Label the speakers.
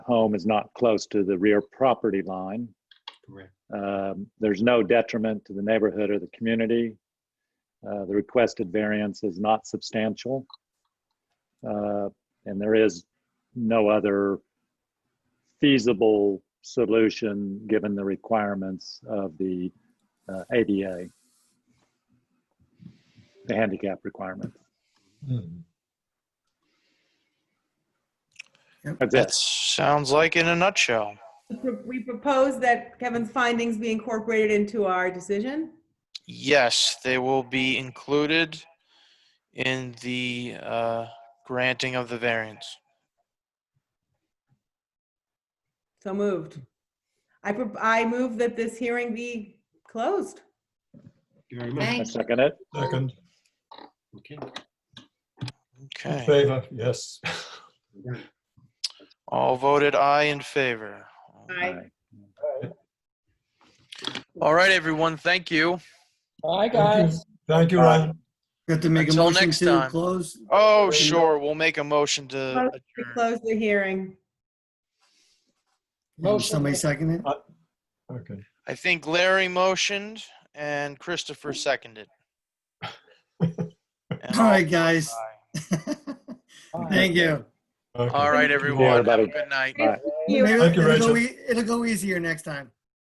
Speaker 1: home is not close to the rear property line.
Speaker 2: Correct.
Speaker 1: Um, There's no detriment to the neighborhood or the community. Uh, The requested variance is not substantial. Uh, And there is no other feasible solution, given the requirements of the uh, ADA, the handicap requirement. That's
Speaker 3: That
Speaker 1: it.
Speaker 3: sounds like in a nutshell.
Speaker 4: We propose that Kevin's findings be incorporated into our decision.
Speaker 3: Yes, they will be included in the uh, granting of the variance.
Speaker 4: So moved. I, prop- I move that this hearing be closed.
Speaker 2: Thank you very much.
Speaker 1: I
Speaker 5: Thank you.
Speaker 1: second it.
Speaker 6: Second,
Speaker 2: Okay.
Speaker 6: in
Speaker 3: Okay,
Speaker 6: favor, yes.
Speaker 2: we're done.
Speaker 3: all voted aye in favor.
Speaker 1: Aye.
Speaker 3: All right, everyone, thank you.
Speaker 7: Bye,
Speaker 6: Thank you.
Speaker 7: guys.
Speaker 6: Thank you, Ryan.
Speaker 5: Got to make a
Speaker 3: Until
Speaker 5: motion
Speaker 3: next
Speaker 5: to
Speaker 3: time.
Speaker 5: close.
Speaker 3: Oh, sure, we'll make a motion to
Speaker 4: Close- We
Speaker 3: adjourn.
Speaker 4: close the hearing.
Speaker 7: Motion.
Speaker 5: Somebody second it?
Speaker 6: Okay.
Speaker 3: I think Larry motioned and Christopher seconded. And
Speaker 5: All right, guys.
Speaker 3: aye.
Speaker 5: Thank you.
Speaker 6: okay.
Speaker 3: All right, everyone, have a
Speaker 1: everybody.
Speaker 3: good night.
Speaker 1: Bye.
Speaker 4: You-
Speaker 5: Maybe
Speaker 6: Thank you,
Speaker 5: it'll go
Speaker 6: Rachel.
Speaker 5: e- It'll go easier next time.